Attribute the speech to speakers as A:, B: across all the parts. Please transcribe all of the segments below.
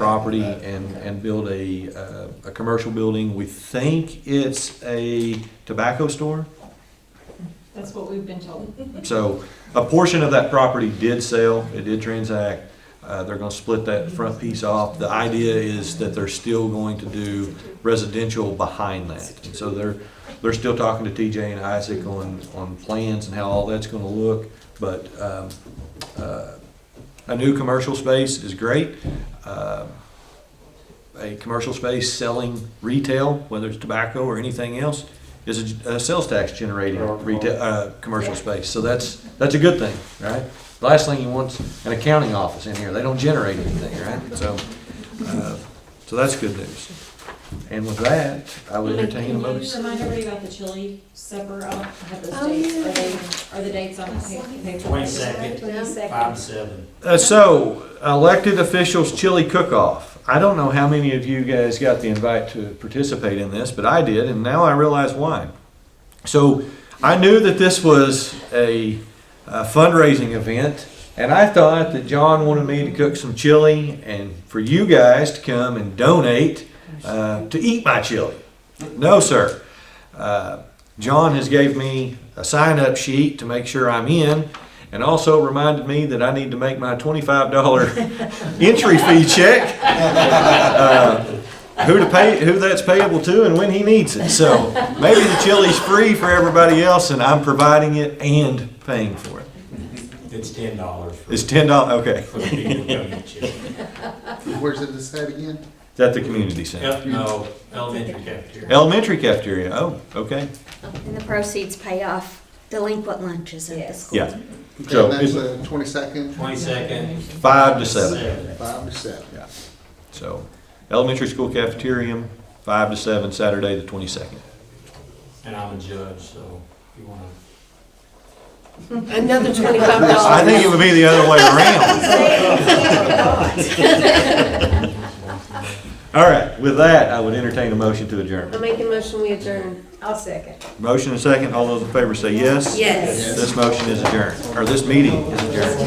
A: property and, and build a, uh, a commercial building. We think it's a tobacco store.
B: That's what we've been told.
A: So a portion of that property did sell, it did transact. Uh, They're going to split that front piece off. The idea is that they're still going to do residential behind that. And So they're, they're still talking to TJ and Isaac on, on plans and how all that's going to look. But um, uh, a new commercial space is great. Uh, A commercial space selling retail, whether it's tobacco or anything else, is a, a sales tax generating retail, uh, commercial space. So that's, that's a good thing, right? Last thing you want is an accounting office in here. They don't generate anything, right? So, uh, so that's good news. And with that, I would entertain a
B: Can you
A: motion.
B: remind everybody about the chili supper? I don't have
C: Oh,
B: those dates.
C: yeah.
B: Are they, are the dates on the pa- paper?
D: Twenty-second, five to seven.
A: Uh, so, elected officials chili cook-off. I don't know how many of you guys got the invite to participate in this, but I did, and now I realize why. So, I knew that this was a, a fundraising event, and I thought that John wanted me to cook some chili and for you guys to come and donate uh, to eat my chili. No, sir. Uh, John has gave me a sign-up sheet to make sure I'm in, and also reminded me that I need to make my twenty-five dollar entry fee check. Uh, Who to pay, who that's payable to and when he needs it. So maybe the chili's free for everybody else and I'm providing it and paying for it.
D: It's ten dollars for
A: It's ten dollar, okay.
D: for the people who come get you.
E: Where's it this at again?
A: Is that the community center?
D: Yep, no, elementary cafeteria.
A: Elementary cafeteria, oh, okay.
C: And the proceeds pay off delinquent lunches at the
B: Yes.
C: school.
A: Yeah, So,
E: And that's
A: is
E: the twenty-second,
D: Twenty-second.
A: five to seven.
E: five to seven.
A: So elementary school cafeteria, five to seven, Saturday the twenty-second.
D: And I'm a judge, so if you wanna,
F: Another twenty-five
A: I
F: dollars.
A: think it would be the other way around. All right, with that, I would entertain a motion to
F: I'm
A: adjourn.
F: making motion, we adjourn.
B: I'll second.
A: Motion and second, all those in favor say yes?
F: Yes.
A: This motion is adjourned, or this meeting is adjourned.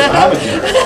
A: I'm adjourned.